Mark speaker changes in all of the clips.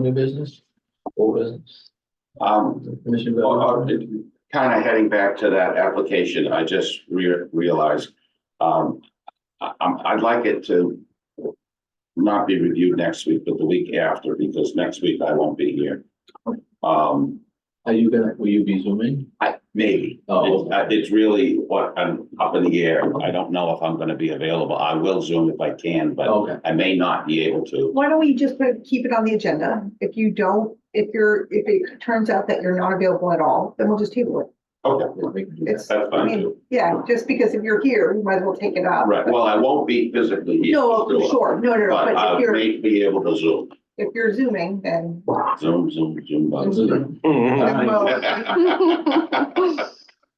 Speaker 1: New business? Old business?
Speaker 2: Um,
Speaker 1: Commissioner Bell?
Speaker 2: uh, kind of heading back to that application, I just re- realized, um, I, I'm, I'd like it to not be reviewed next week, but the week after, because next week I won't be here. Um,
Speaker 1: Are you gonna, will you be zooming?
Speaker 2: I, maybe.
Speaker 1: Oh.
Speaker 2: It's- uh, It's really what I'm up in the air. I don't know if I'm gonna be available. I will Zoom if I can, but
Speaker 1: Okay.
Speaker 2: I may not be able to.
Speaker 3: Why don't we just put, keep it on the agenda? If you don't, if you're, if it turns out that you're not available at all, then we'll just table it.
Speaker 2: Okay,
Speaker 1: Yeah, we can do that.
Speaker 3: It's,
Speaker 2: that's
Speaker 3: I
Speaker 2: fine
Speaker 3: mean,
Speaker 2: too.
Speaker 3: yeah, just because if you're here, we might as well take it up.
Speaker 2: Right, well, I won't be physically here.
Speaker 3: No, oh,
Speaker 2: for sure,
Speaker 3: sure, no, no, no,
Speaker 2: But uh,
Speaker 3: but
Speaker 2: I
Speaker 3: if you're,
Speaker 2: may be able to Zoom.
Speaker 3: if you're zooming, then.
Speaker 2: Zoom, zoom, zoom, buzz.
Speaker 1: Zoom. All
Speaker 3: then
Speaker 1: right.
Speaker 3: we'll-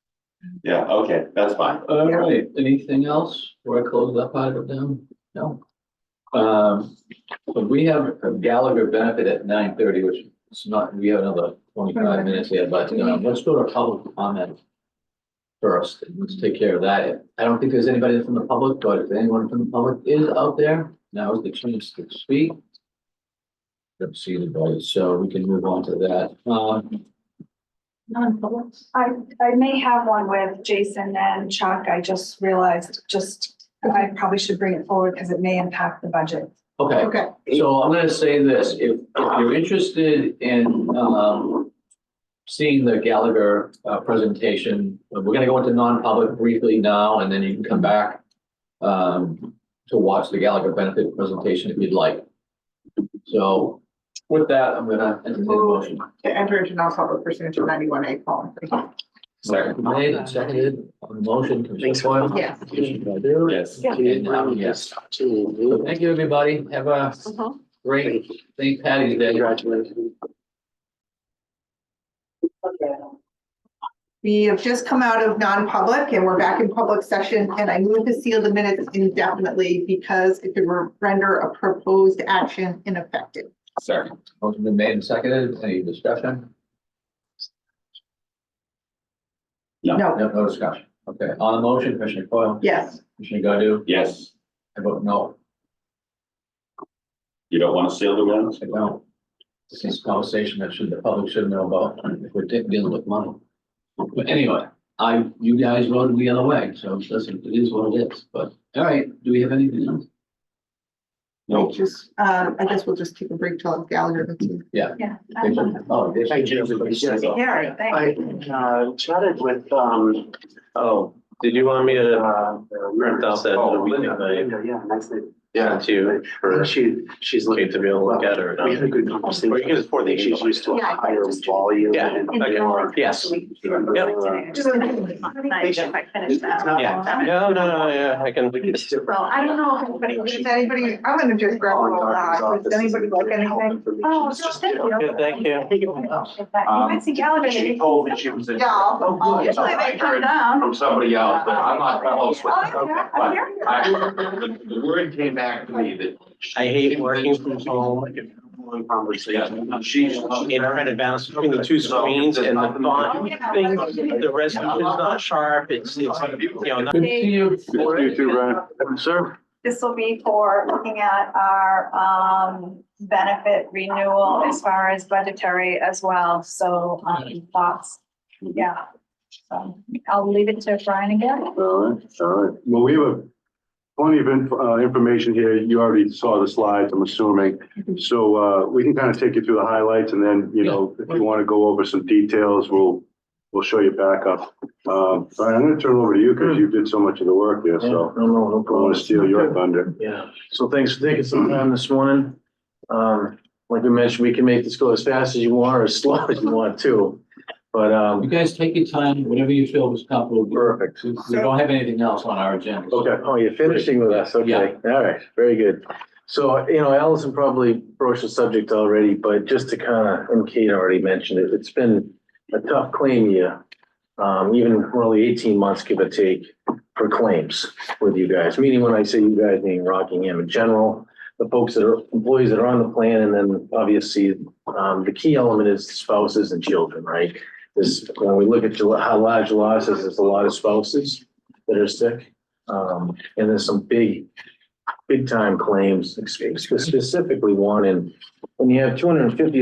Speaker 2: Yeah, okay, that's fine.
Speaker 1: All right, anything else before I close that part of them? No? Um, but we have a Gallagher benefit at nine thirty, which is not, we have another twenty-five minutes here, but um, let's go to public comment first. Let's take care of that. I don't think there's anybody from the public, but if anyone from the public is out there, now is the chance to speak. Don't see anybody, so we can move on to that. Um,
Speaker 3: Non-public.
Speaker 4: I, I may have one with Jason and Chuck. I just realized, just, I probably should bring it forward because it may impact the budget.
Speaker 1: okay.
Speaker 3: Okay,
Speaker 1: So I'm gonna say this, if, if you're interested in, um, seeing the Gallagher, uh, presentation, we're gonna go into non-public briefly now, and then you can come back, um, to watch the Gallagher benefit presentation if you'd like. So with that, I'm gonna entertain a motion.
Speaker 3: to enter into non-public pursuant to ninety-one A column. three.
Speaker 2: Second.
Speaker 1: Made and seconded, on the motion, Commissioner
Speaker 5: Thanks.
Speaker 1: Foil.
Speaker 3: Yes.
Speaker 2: Yes.
Speaker 1: And
Speaker 5: um,
Speaker 1: I'm a yes. So Thank you, everybody. Have a great St. Patty's Day.
Speaker 5: Congratulations.
Speaker 3: We have just come out of non-public and we're back in public session and I move to seal the minutes indefinitely because it could render a proposed action ineffective.
Speaker 2: Second.
Speaker 1: Motion been made and seconded. Any discussion?
Speaker 3: No,
Speaker 1: No, no discussion. Okay, on the motion, Commissioner Coyle,
Speaker 3: yes.
Speaker 1: Commissioner Godu,
Speaker 2: Yes,
Speaker 1: I vote no.
Speaker 2: you don't want to seal the minutes?
Speaker 1: I don't. This is a conversation that should, the public should know about if we're de- dealing with money. But anyway, I, you guys voted the other way, so listen, it is what it is, but all right, do we have anything else?
Speaker 3: I
Speaker 2: No.
Speaker 3: just, um, I guess we'll just take a break till Gallagher. can see.
Speaker 4: Yeah.
Speaker 1: Oh, yes.
Speaker 5: Thank you, everybody. Yes.
Speaker 4: Yeah,
Speaker 5: I uh, chatted with, um,
Speaker 6: Oh, did you want me to uh, print out that
Speaker 5: oh,
Speaker 6: meeting night
Speaker 5: Linda, yeah, nicely.
Speaker 6: to you for
Speaker 5: And she, she's looking
Speaker 6: Kate to be able to look at or
Speaker 5: We had a
Speaker 6: not?
Speaker 5: good conversation.
Speaker 6: Or you can just pour the
Speaker 5: She's
Speaker 6: email.
Speaker 5: used to a
Speaker 4: Yeah, I can
Speaker 5: higher
Speaker 4: just-
Speaker 5: volume.
Speaker 6: Yeah.
Speaker 5: and-
Speaker 6: Okay. Yes.
Speaker 4: Just if I finish that.
Speaker 6: Yeah. No, no, no, yeah, I can.
Speaker 5: It's different.
Speaker 4: Well, I don't know if anybody
Speaker 3: Does anybody, I'm gonna just grab
Speaker 5: All
Speaker 2: Oh,
Speaker 3: a
Speaker 5: in
Speaker 3: roll
Speaker 5: doctor's
Speaker 3: out.
Speaker 5: office
Speaker 3: Does anybody
Speaker 5: is
Speaker 3: like
Speaker 5: different health
Speaker 3: anything?
Speaker 5: information.
Speaker 4: Oh,
Speaker 5: It's
Speaker 4: no,
Speaker 5: just
Speaker 4: thank you.
Speaker 5: different.
Speaker 6: Good, thank you. Um,
Speaker 4: You might see Gallagher.
Speaker 5: She told me she was in.
Speaker 3: Yeah, I'll- I'll-
Speaker 5: good.
Speaker 4: Usually they come down.
Speaker 2: From somebody else, but I'm not close with
Speaker 4: Oh,
Speaker 2: it.
Speaker 4: yeah,
Speaker 2: But
Speaker 4: I'm here.
Speaker 2: I, the the word came back to me that.
Speaker 6: I hate working from home.
Speaker 5: Long Conversation.
Speaker 2: She's.
Speaker 6: In trying to balance between the two screens and the font thing, the resolution's not sharp, it's, it's, you know, not.
Speaker 1: Good to see you.
Speaker 5: You too, Ryan. Sir?
Speaker 4: This will be for looking at our um benefit renewal as far as budgetary as well, so um thoughts, yeah. So I'll leave it to Brian again.
Speaker 7: All right, all right. Well, we have a- plenty of inf- uh, information here. You already saw the slides, I'm assuming. So uh, we can kind of take you through the highlights and then, you know, if you want to go over some details, we'll, we'll show you back up. Um, All right, I'm going to turn it over to you because you did so much of the work there,
Speaker 1: Yeah, No,
Speaker 7: so
Speaker 1: no, no
Speaker 7: I don't want
Speaker 1: problem.
Speaker 7: to steal your thunder.
Speaker 6: Yeah.
Speaker 8: So thanks for taking some time this morning. Um, like we mentioned, we can make this go as fast as you want or as slow as you want too. But,
Speaker 1: You
Speaker 8: um,
Speaker 1: guys take your time, whatever you feel is comfortable.
Speaker 8: perfect.
Speaker 1: We we don't have anything else on our agenda. so-
Speaker 8: Okay, oh, you're finishing with us, okay, all right, very good. So, you know, Allison probably broached the subject already, but just to kind of, and Kate already mentioned it, it's been a tough claim year. Um, even really eighteen months, give or take, for claims with you guys, meaning when I say you guys, meaning Rockingham in general, the folks that are, employees that are on the plan, and then obviously, um, the key element is spouses and children, right? This, when we look at Jul- how large losses, there's a lot of spouses that are sick. Um, and there's some big, big time claims, spe- specifically one in, when you have two hundred and fifty